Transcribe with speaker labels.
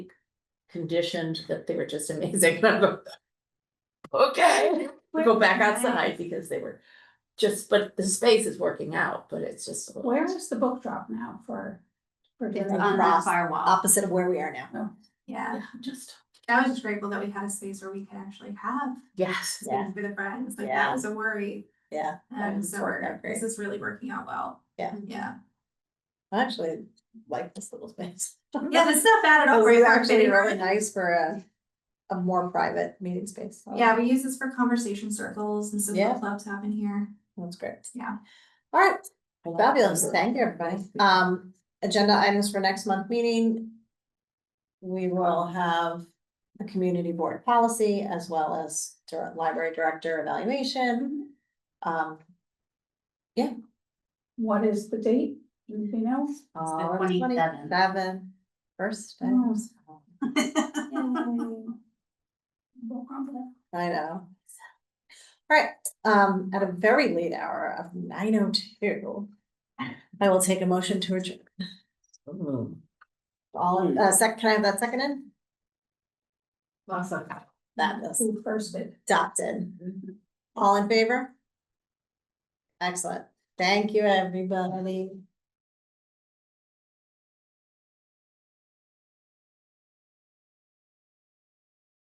Speaker 1: conditioned that they were just amazing. And I'm like, Okay, we go back outside because they were just, but the space is working out, but it's just. a little-
Speaker 2: Where is the book drop now for? For
Speaker 3: It's
Speaker 2: dinner?
Speaker 3: on the
Speaker 4: Across.
Speaker 3: firewall,
Speaker 4: opposite of where we are now.
Speaker 3: yeah,
Speaker 2: Yeah, Just,
Speaker 3: I was just grateful that we had a space where we could actually have
Speaker 1: Yes,
Speaker 4: Yeah.
Speaker 3: things with the friends, like
Speaker 4: Yeah.
Speaker 3: that was a worry.
Speaker 4: Yeah, that
Speaker 3: And
Speaker 4: was
Speaker 3: so
Speaker 4: working
Speaker 3: we're-
Speaker 4: out great.
Speaker 3: this is really working out well.
Speaker 4: Yeah.
Speaker 3: Yeah,
Speaker 4: I actually like this little space.
Speaker 3: yeah, this is not bad at all.
Speaker 4: It
Speaker 3: for
Speaker 4: was
Speaker 3: a work
Speaker 4: Oh, actually
Speaker 3: meeting.
Speaker 4: really nice for a, a more private meeting space. so
Speaker 3: Yeah, we use this for conversation circles and some
Speaker 4: Yeah.
Speaker 3: book clubs happen here.
Speaker 4: That's great.
Speaker 3: Yeah.
Speaker 4: All right,
Speaker 1: I like
Speaker 4: fabulous.
Speaker 1: that.
Speaker 4: Thank you, everybody. Um, agenda items for next month meeting. We will have a community board policy as well as dir- library director evaluation. Um,
Speaker 2: what is the date? Anything else?
Speaker 4: uh,
Speaker 5: 27th.
Speaker 4: Seven, first. day.
Speaker 2: Oh.
Speaker 3: Mm.
Speaker 4: I know. All right, um, at a very late hour of nine oh two, I will take a motion to adjourn.
Speaker 1: Mm.
Speaker 4: All, uh, sec, can I have that second in?
Speaker 2: Awesome.
Speaker 4: That is
Speaker 2: Who firsted?
Speaker 4: adopted. All in favor? Excellent. Thank you, everybody.